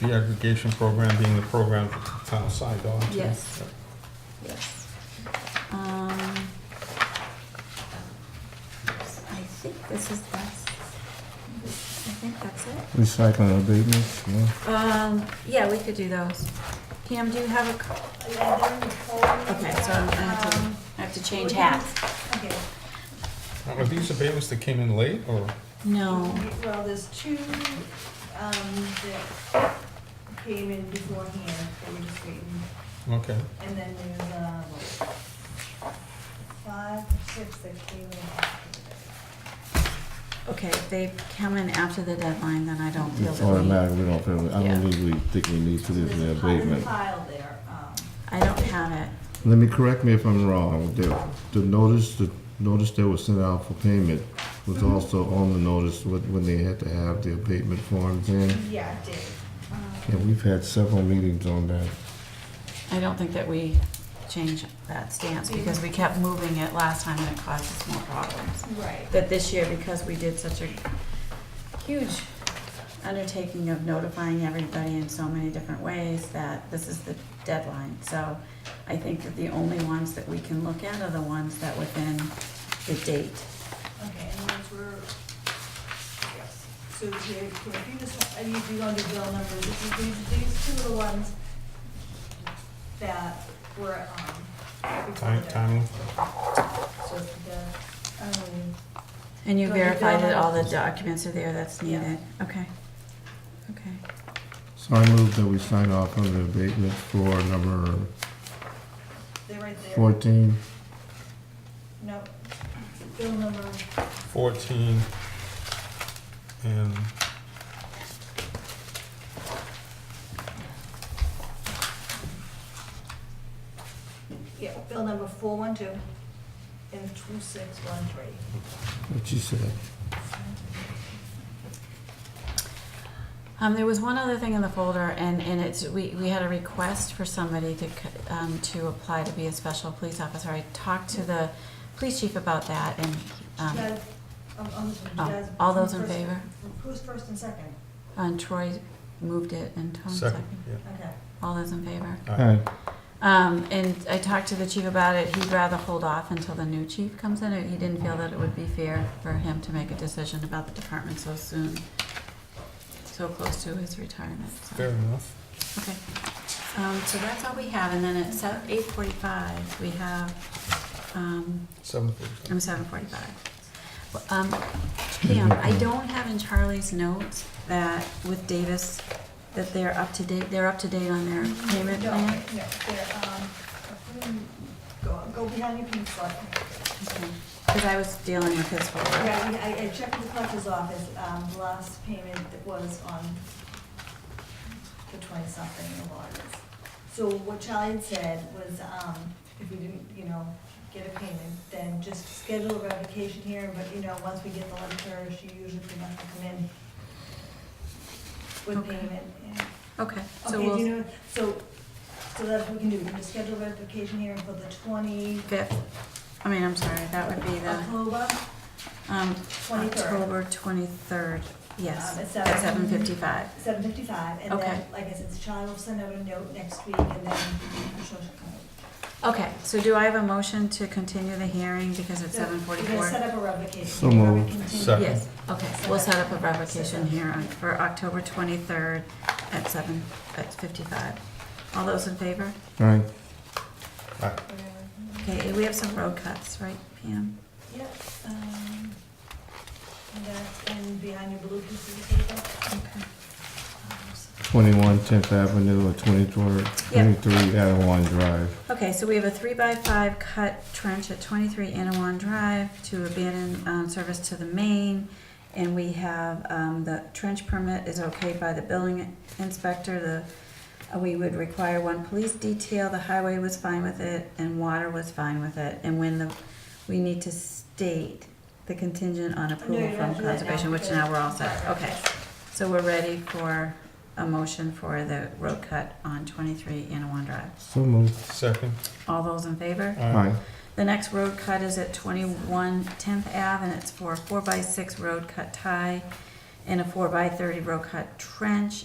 the aggregation program being the program that the town signed on to. Yes. Yes. Um, I think this is, that's, I think that's it. Recycling abatements, yeah. Um, yeah, we could do those. Pam, do you have a, Um, co- okay, so I'm- I have to, I have to change hats. Um, Okay, Now, Are these abatements that came in late, or? No. well, there's two, um, that came in beforehand, they were just waiting, Okay, and then there's, um, five, six that came in after that. Okay, if they come in after the deadline, then I don't feel It's that we, automatic, we don't, feel- I Yeah. don't think we think we need to do the There's a pile- abatement. Pile there, um, I don't have it. Let me correct me if I'm wrong, the, the notice, the notice that was sent out for payment was also on the notice when, when they had to have the abatement forms in. yeah, it did. Um, And we've had several meetings on that. I don't think that we change that stance because we kept moving it last time and it caused us more problems. Um, Right, That this year, because we did such a huge undertaking of notifying everybody in so many different ways, that this is the deadline. So I think that the only ones that we can look at are the ones that within the date. okay, and those were, yes, so here, here, if you just, I need you on the bill number, this is, these, these two are the ones that were, um, before time, the- time, So the, um, And you Do I need verified that? that all the documents are there that's needed? Okay. Okay. So I move that we sign off on the abatement for number they're right there. fourteen. No, bill number, fourteen, and yeah, bill number four one two and two six one three. What you said. Um, there was one other thing in the folder, and, and it's, we, we had a request for somebody to, c- um, to apply to be a special police officer. I talked to the police chief about that, and, um, Guys, um, on this one, oh, guys, all those in who's first- favor? Who's first and second? And Troy moved it, and Tom second, seconded. yeah. Okay. All those in favor? Hi, Um, and I talked to the chief about it. He'd rather hold off until the new chief comes in. He didn't feel that it would be fair for him to make a decision about the department so soon, so close to his retirement. so. fair enough. Okay, um, so that's all we have, and then at seven, eight forty-five, we have, um, Seven forty-five. I'm seven forty-five. Um, Pam, I don't have in Charlie's notes that with Davis, that they're up to date, they're up to date on their payment No, plan? No, they're, um, hmm, go, go behind your pink slip. Okay. Cause I was dealing with his folder. Yeah, I, I- I checked with the collector's office, um, the last payment that was on the twenty-something of August. So what Charlie had said was, um, if we didn't, you know, get a payment, then just schedule a revocation hearing, but, you know, once we get the letter, she usually pretty much will come in with Okay. payment, yeah. Okay, so Okay, do you we'll, know, so, so that's what we can do, we can just schedule a revocation hearing for the twenty, fifth, I mean, I'm sorry, that would be the, October um, twenty-third. October twenty-third, yes, Um, at at seven seven. fifty-five. Seven fifty-five, and Okay. then, like I said, Charlie will send out a note next week, and then she'll come. Okay, so do I have a motion to continue the hearing because it's seven We're gonna forty-four? set up a revocation. So hearing, moved. continue. Second. Yes, okay, we'll set up a revocation hearing for October twenty-third at seven, at fifty-five. All those in favor? hi. Okay, we have some road cuts, right, Pam? Yep, um, and that's in behind your blue piece of paper. Okay. Um, so- Twenty-one Tenth Avenue or twenty-three, Yeah. twenty-three Adawan Drive. Okay, so we have a three-by-five cut trench at twenty-three Anawan Drive to abandon, um, service to the main. And we have, um, the trench permit is okayed by the building inspector, the, uh, we would require one police detail, the highway was fine with it, and water was fine with it. And when the, we need to state the contingent on No, you approval don't from have to do that now, conservation, which because- now we're all set, okay. So we're ready for a motion for the road cut on twenty-three Anawan Drive. So moved. Second, All those in favor? aye. Hi, The next road cut is at 21 10th Ave, and it's for a four by six road cut tie and a four by thirty road cut trench